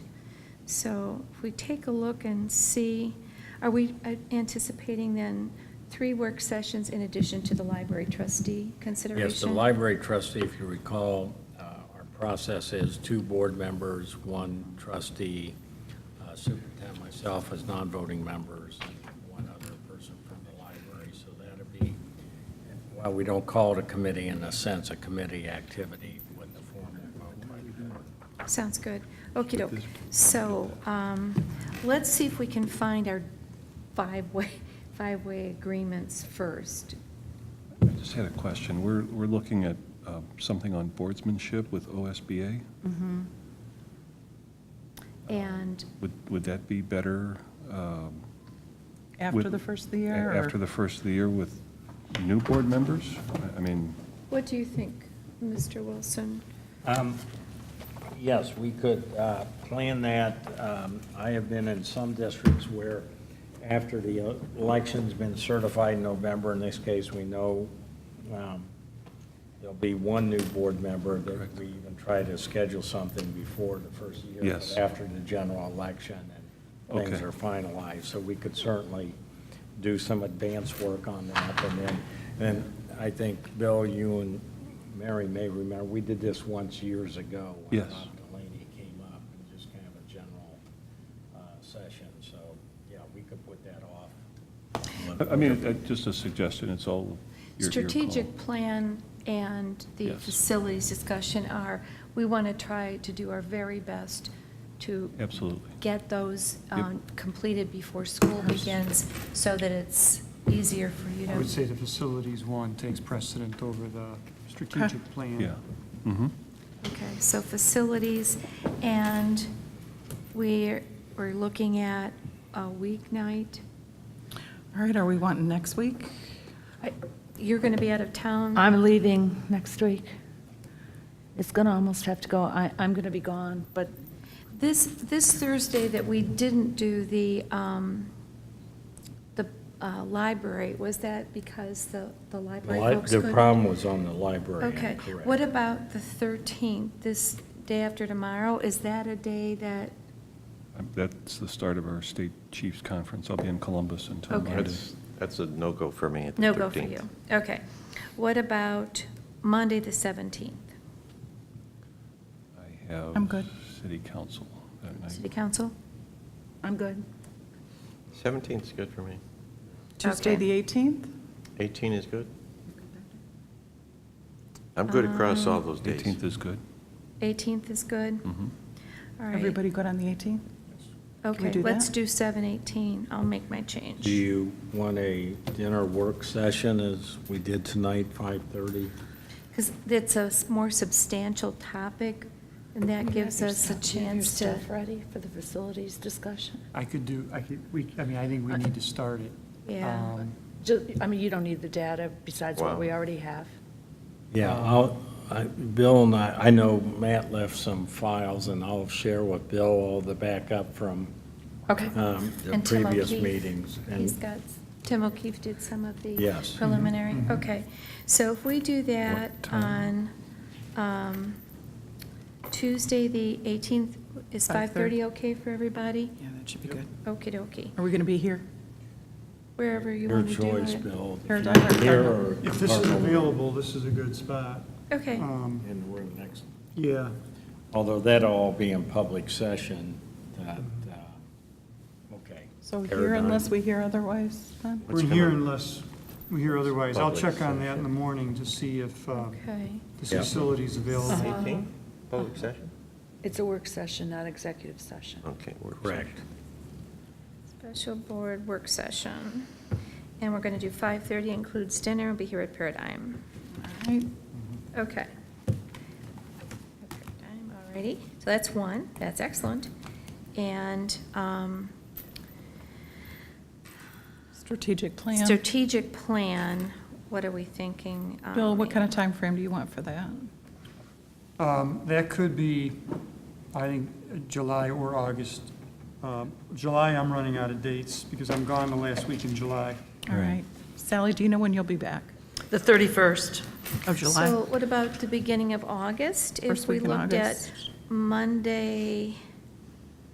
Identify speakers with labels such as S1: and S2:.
S1: So if we take a look and see, are we uh, anticipating then three work sessions in addition to the library trustee consideration?
S2: Yes, the library trustee, if you recall, uh, our process is two board members, one trustee, uh, superintendent, myself as non-voting members, and one other person from the library. So that'd be, while we don't call it a committee in a sense, a committee activity with the formal vote by the board.
S1: Sounds good. okey doke. So um, let's see if we can find our five-way, five-way agreements first.
S3: I just had a question. We're, we're looking at um, something on boardsmanship with OSBA.
S1: And
S3: Would, would that be better? um,
S4: After
S3: with-
S4: the first of the
S3: a-
S4: year? or-
S3: After the first of the year with new board members? I- I mean,
S1: what do you think, Mr. Wilson?
S2: Um, Yes, we could uh, plan that. Um, I have been in some districts where after the election's been certified in November, in this case, we know um, there'll be one new board member that
S3: Correct.
S2: we even try to schedule something before the first year. but
S3: Yes.
S2: After the general election and things
S3: Okay.
S2: are finalized. So we could certainly do some advance work on that. And then, and I think, Bill, you and Mary may remember, we did this once years ago. when
S3: Yes.
S2: Bob Delaney came up and just kind of a general uh, session. So, yeah, we could put that off.
S3: I- I mean, uh, just a suggestion, it's all your your call.
S1: Strategic plan and the
S3: Yes.
S1: facilities discussion are, we want to try to do our very best to
S3: Absolutely.
S1: get those
S3: Yep.
S1: um, completed before school begins, so that it's easier for you to.
S5: I would say the facilities one takes precedent over the strategic plan.
S3: Yeah. Mm-hmm.
S1: Okay, so facilities, and we're, we're looking at a weeknight.
S4: All right, are we wanting next week?
S1: I- You're going to be out of town?
S6: I'm leaving next week. It's going to almost have to go, I, I'm going to be gone, but
S1: This, this Thursday that we didn't do the, um, the uh, library, was that because the, the library folks
S2: The
S1: couldn't?
S2: problem was on the library.
S1: Okay, what about the 13th, this day after tomorrow? Is that a day that,
S3: That's the start of our state chiefs conference. I'll be in Columbus until
S1: Okay.
S3: Monday.
S7: That's, that's a no-go for me at the 13th.
S1: no go for you? Okay. What about Monday, the 17th?
S3: I have.
S4: I'm good.
S3: City council that night.
S1: City Council?
S6: I'm good.
S7: 17th's good for me.
S4: Tuesday, the 18th?
S7: 18 is good. I'm good across
S1: Um,
S7: all those days.
S3: 18th is good.
S1: 18th is good?
S2: Mm-hmm.
S3: Mhm.
S1: All right.
S4: Everybody good on the 18th? we
S1: Okay,
S4: do
S1: let's
S4: that?
S1: do 7:18. I'll make my change.
S2: Do you want a dinner work session as we did tonight, 5:30?
S1: Because it's a s- more substantial topic, and that gives us a chance to,
S6: ready for the facilities discussion?
S5: I could do, I could, we, I mean, I think we need to start it.
S1: Yeah.
S5: Um,
S6: Ju- I mean, you don't need the data besides what
S7: Wow.
S6: we already have.
S2: Yeah,
S1: Um,
S2: I'll, I, Bill and I, I know Matt left some files, and I'll share with Bill all the backup from,
S1: Okay.
S2: um, the
S1: And Tim
S2: previous
S1: O'Keefe,
S2: meetings. and-
S1: He's got, Tim O'Keefe did some of the
S2: Yes. Mm-hmm.
S1: preliminary, okay. So if we do that on um, Tuesday, the 18th, is 5:30
S4: 5:30.
S1: okay for everybody?
S4: Yeah, that should be good.
S1: Okie dokie,
S4: Are we going to be here?
S1: wherever you
S2: Your
S1: want to do it.
S2: choice, Bill.
S4: Or
S2: If
S4: Dr.
S2: you're here
S4: Cardinal.
S2: or
S5: If this is
S2: Cardinal.
S5: available, this is a good spot.
S1: Okay,
S5: Um,
S2: And we're next,
S5: Yeah,
S2: although that'll all be in public session, that, uh, okay.
S4: So here unless we hear otherwise, then?
S7: Let's
S5: we're
S7: come
S5: here
S7: on.
S5: unless we hear otherwise. I'll
S7: Public
S5: check on that in the morning to see if uh,
S1: okay. Uh-huh.
S5: this
S2: Yeah.
S5: facility's available.
S7: 18, public session?
S6: It's a work session, not executive session.
S7: Okay. we're-
S2: Correct.
S1: Special board work session. And we're going to do 5:30 includes dinner, we'll be here at Paradigm.
S4: All right.
S1: Okay. Paradigm, Alrighty, so that's one, that's excellent. And um,
S4: Strategic plan.
S1: strategic plan, what are we thinking? um,
S4: Bill, what kind of time frame do you want for that?
S5: Um, That could be, I think, uh, July or August. Um, July, I'm running out of dates because I'm gone the last week in July.
S4: All right. Sally, do you know when you'll be back?
S8: The 31st.
S4: Of July?
S1: So what about the beginning of August?
S4: First week in
S1: If we looked at
S4: August.
S1: Monday,